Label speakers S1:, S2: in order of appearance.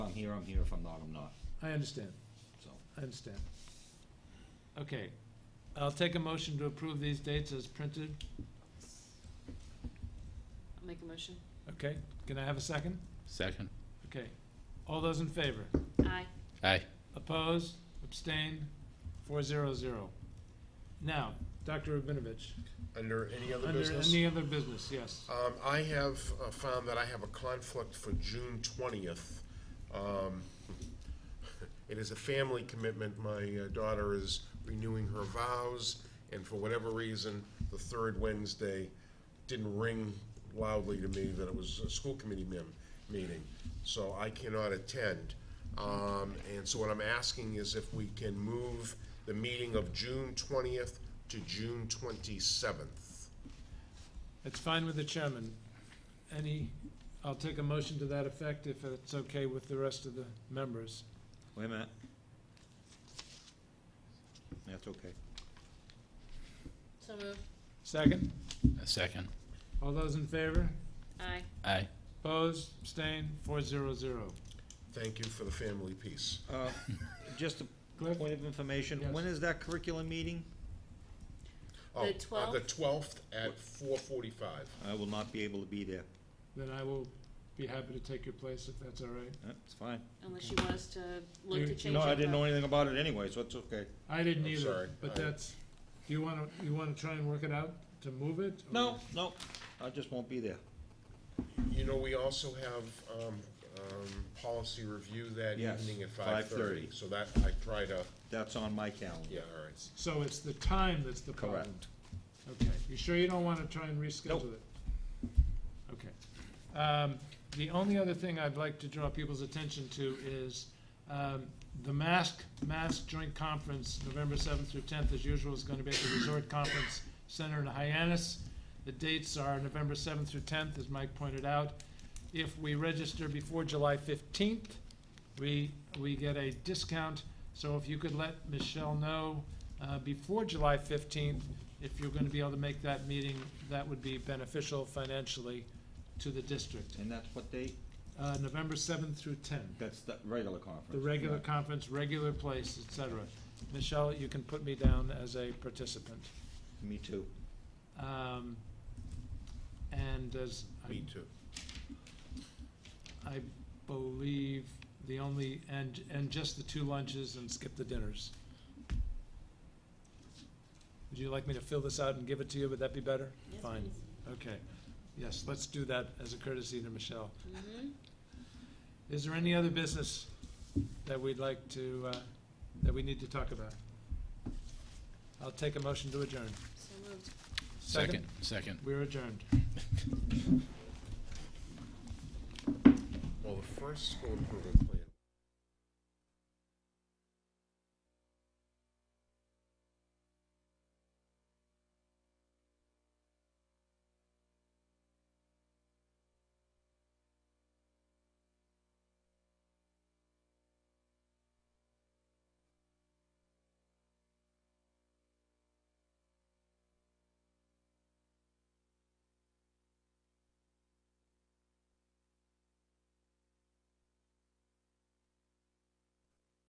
S1: here, I'm here, if I'm not, I'm not,
S2: I understand,
S1: so.
S2: I understand. Okay, I'll take a motion to approve these dates as printed.
S3: I'll make a motion.
S2: Okay, can I have a second?
S4: Second.
S2: Okay. All those in favor?
S3: Aye.
S4: Aye.
S2: Opposed? Abstained? Four zero zero. Now, Dr. Rubinovich,
S5: Under any other
S2: under
S5: business?
S2: any other business, yes.
S5: Um, I have uh, found that I have a conflict for June twentieth. Um, it is a family commitment. My uh, daughter is renewing her vows, and for whatever reason, the third Wednesday didn't ring loudly to me that it was a school committee mem- meeting, so I cannot attend. Um, and so what I'm asking is if we can move the meeting of June twentieth to June twenty-seventh.
S2: It's fine with the chairman. Any, I'll take a motion to that effect if it's okay with the rest of the members.
S1: Wait a minute. That's okay.
S3: So moved.
S2: Second?
S4: A second.
S2: All those in favor?
S3: Aye.
S4: Aye.
S2: Opposed? Abstained? Four zero zero.
S5: Thank you for the family piece.
S1: Uh, Just a
S2: Cliff?
S1: point of information,
S2: Yes.
S1: when is that curriculum meeting?
S5: Oh,
S3: The
S5: uh, The
S3: 12th?
S5: twelfth at four forty-five.
S1: I will not be able to be there.
S2: Then I will be happy to take your place if that's all right.
S1: That's fine.
S3: Unless you want us to look
S2: You-
S3: to change
S1: No, I
S3: our
S1: didn't know
S3: vote.
S1: anything about it anyway, so it's okay.
S2: I didn't
S5: I'm
S2: either,
S5: sorry.
S2: but
S5: I-
S2: that's, do you wanna, you wanna try and work it out to move it? or-
S1: No, no, I just won't be there.
S5: You know, we also have, um, um, policy review that
S1: Yes,
S5: evening at
S1: 5:30.
S5: five-thirty. So that, I try to,
S1: That's on my calendar.
S5: yeah, all right.
S2: So it's the time that's the problem?
S1: Correct.
S2: Okay, you sure you don't wanna try and reschedule it? Okay. Um, the only other thing I'd like to draw people's attention to is, um, the Mask, Mask Joint Conference, November seventh through tenth, as usual, is gonna be at the Resort Conference Center in Hyannis. The dates are November seventh through tenth, as Mike pointed out. If we register before July fifteenth, we, we get a discount. So if you could let Michelle know, uh, before July fifteenth, if you're gonna be able to make that meeting, that would be beneficial financially to the district.
S1: And that's what they,
S2: Uh, November seventh through tenth.
S1: that's the regular conference.
S2: The regular conference, regular place, et cetera. Michelle, you can put me down as a participant.
S1: Me too.
S2: Um, And as
S5: Me
S2: I,
S5: too.
S2: I believe the only, and, and just the two lunches and skip the dinners. Would you like me to fill this out and give it to you? Would that be better?
S3: Yes,
S2: Fine. Okay. Yes, let's do that as a courtesy to Michelle.
S3: please. Mhm.
S2: Is there any other business that we'd like to, uh, that we need to talk about? I'll take a motion to adjourn.
S3: So moved.
S4: Second. Second.
S2: We're adjourned.
S5: Well, the first school improvement